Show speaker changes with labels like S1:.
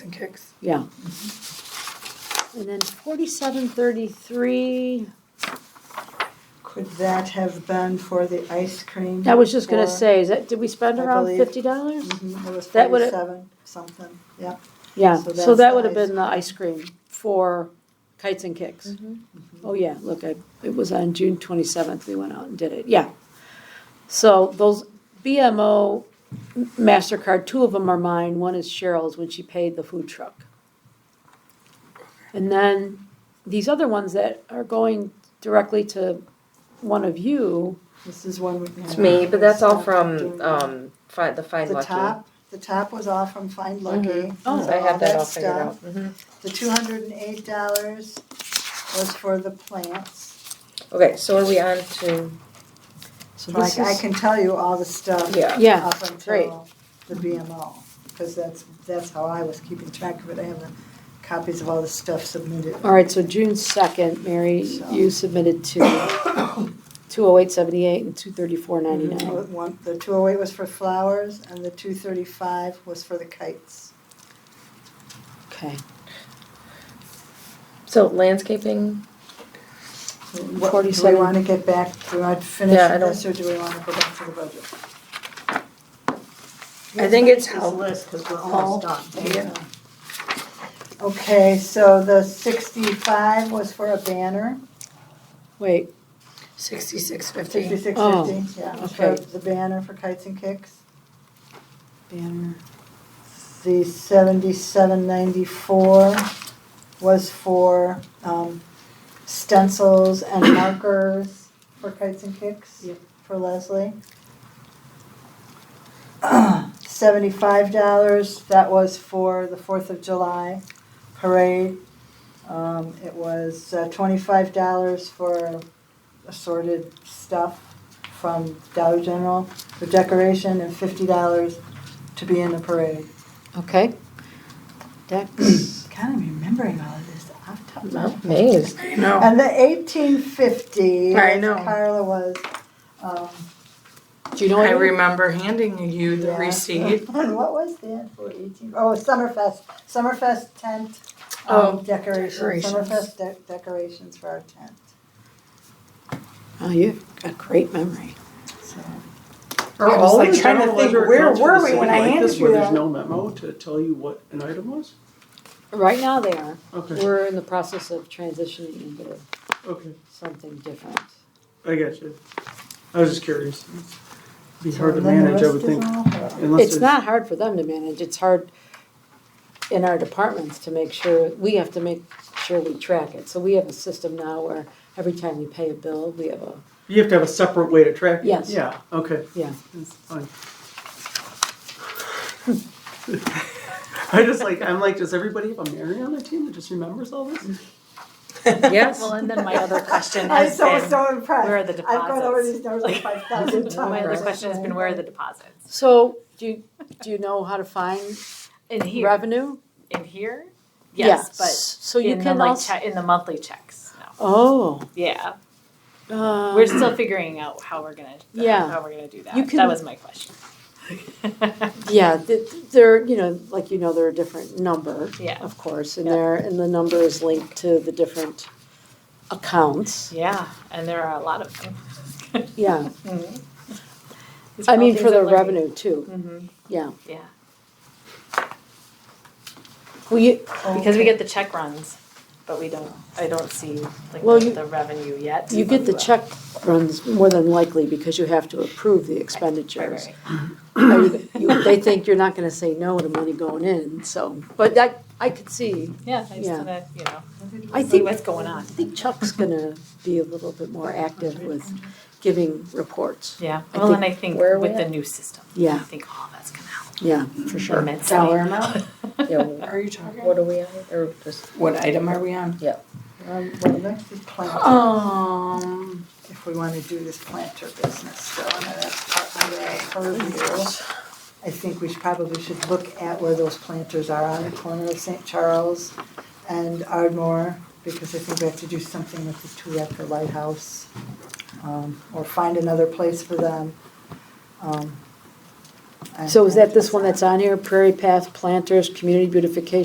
S1: and kicks.
S2: Yeah. And then forty-seven thirty-three,
S3: Could that have been for the ice cream?
S2: I was just gonna
S3: Or-
S2: say, is that, did we spend
S3: I
S2: around
S3: believe-
S2: fifty dollars?
S3: Mhm, It was
S2: That would've-
S3: forty-seven, something, yeah.
S2: Yeah,
S3: So
S2: so
S3: that's
S2: that
S3: the
S2: would have
S3: ice
S2: been the ice cream for kites and kicks.
S3: Mm-hmm.
S2: Oh, yeah, look, I, it was on June twenty-seventh, we went out and did it, yeah. So those BMO MasterCard, two of them are mine, one is Cheryl's when she paid the food truck. And then these other ones that are going directly to one of you,
S3: This is one we.
S4: It's me, but that's all from um, find, the Find
S3: The
S4: Lucky.
S3: top, the top was all from Find Lucky.
S2: Oh.
S3: so
S4: I have that all figured
S3: stuff.
S4: out. Mhm.
S3: The two hundred and eight dollars was for the plants.
S4: Okay, so are we on to,
S3: So
S2: this
S3: I, I
S2: is-
S3: can tell you all the stuff.
S4: yeah.
S2: yeah,
S3: Up
S2: great.
S3: until the BMO, because that's, that's how I was keeping track of it. I have the copies of all the stuff submitted.
S2: All right, so June second, Mary, you submitted to two oh eight seventy-eight and two thirty-four ninety-nine.
S3: One, the two oh eight was for flowers and the two thirty-five was for the kites.
S2: Okay,
S4: So landscaping,
S3: What- Do
S2: 47.
S3: we wanna get back, do we want to uh, finish
S4: Mm, Yeah, I
S3: with this or do we wanna go back to the budget?
S4: I think it's
S5: This
S4: help-
S5: list, because we're almost done.
S3: Yeah. Okay, so the sixty-five was for a banner,
S2: wait,
S1: Sixty-six fifty.
S3: sixty-six
S2: Oh,
S3: fifty, yeah, it was for
S2: okay.
S3: the banner for kites and kicks.
S2: banner.
S3: The seventy-seven ninety-four was for, um, stencils and markers for kites and kicks.
S5: Yep.
S3: For Leslie. Seventy-five dollars, that was for the Fourth of July parade. Um, it was uh, twenty-five dollars for assorted stuff from Dollar General for decoration and fifty dollars to be in the parade.
S2: Okay. Dex,
S3: Kind of remembering all of this off the top of my
S4: I'm amazed.
S1: No.
S3: And the eighteen fifty,
S1: I know.
S3: Carla was, um.
S2: do you know?
S1: I
S2: anyone?
S1: remember handing you the
S3: yeah.
S1: receipt.
S3: And what was that for eighteen? Oh, Summerfest, Summerfest tent,
S1: Oh,
S3: um, decorations,
S1: decorations.
S3: Summerfest de- decorations for our tent,
S2: Oh, you've got great memory.
S3: so.
S1: I was like
S6: I
S1: trying
S6: don't
S1: to think,
S6: know whether it
S1: where
S6: counts for
S1: were
S6: the
S1: we
S6: same
S1: when I
S6: like
S1: handed
S6: this, where
S1: you
S6: There's
S1: that?
S6: no memo to tell you what an item was?
S2: Right now they are.
S6: Okay,
S2: We're in the process of transitioning into
S6: okay,
S2: something different.
S6: I got you. I was just curious. Be
S3: so
S6: hard to
S3: then the
S6: manage, I
S3: rest
S6: would
S3: is
S6: think,
S3: all her.
S6: unless
S2: It's
S6: there's.
S2: not hard for them to manage, it's hard in our departments to make sure, we have to make sure we track it. So we have a system now where every time we pay a bill, we have a,
S6: You have to have a separate way to track it.
S2: Yes.
S6: Yeah, okay,
S2: yeah.
S6: that's fine. I just like, I'm like, does everybody have a Mary on their team that just remembers all this?
S4: Yes.
S5: Well, and then my other question
S3: I'm
S5: has
S3: so,
S5: been,
S3: so impressed.
S5: where are the
S3: I've gone over
S5: deposits?
S3: these numbers like five thousand times.
S5: my other question has been, where are the deposits?
S2: So do you, do you know how to find
S5: In here,
S2: revenue?
S5: in here?
S2: Yes.
S5: Yes, but
S2: So you
S5: in the
S2: can
S5: like,
S2: also,
S5: che- in the monthly checks, no.
S2: oh,
S5: Yeah,
S2: uh.
S5: we're still figuring out how we're gonna,
S2: Yeah.
S5: how we're gonna do
S2: You
S5: that.
S2: can-
S5: That was my question.
S2: Yeah, th- they're, you know, like you know, they're a different number,
S5: Yeah,
S2: of course, and
S5: Yeah.
S2: they're, and the number is linked to the different accounts,
S5: yeah, and there are a lot of them.
S2: yeah.
S5: These are
S2: I
S5: all
S2: mean,
S5: things
S2: for the
S5: I'm learning.
S2: revenue too,
S5: Mhm,
S2: yeah.
S5: yeah,
S2: Well, you,
S5: because we get the check runs, but we don't, I don't see like
S2: Well,
S5: the
S2: you-
S5: the revenue yet.
S2: you get the
S5: but we will.
S2: check runs more than likely because you have to approve the
S5: Right,
S2: expenditures.
S5: right,
S2: Or you- you- They think you're not gonna say no to money going in, so, but that, I could see,
S5: right. Yeah, I just
S2: Yeah.
S5: wanna, you know,
S2: I
S5: see
S2: think, I
S5: what's going on.
S2: think Chuck's gonna be a little bit more active with giving reports,
S5: Yeah,
S2: I
S5: well,
S2: think-
S5: and I think
S4: Where are we
S5: with the
S4: at?
S5: new system, I
S2: yeah,
S5: think all that's gonna help
S2: yeah, for sure.
S5: immensely.
S1: Dollar amount?
S4: Yeah,
S1: Are you talking?
S4: what are we on, or just,
S1: What item are we on?
S3: Um, well, next is planter,
S1: Um,
S3: if we wanna do this planter business, so I know that's part under our purview. I think we should, probably should look at where those planters are on the corner of St. Charles and Ardmore, because I think we have to do something with the Tureca Lighthouse, um, or find another place for them. Um, and-
S2: So is that this one that's on here, Prairie Path Planters, Community Beautification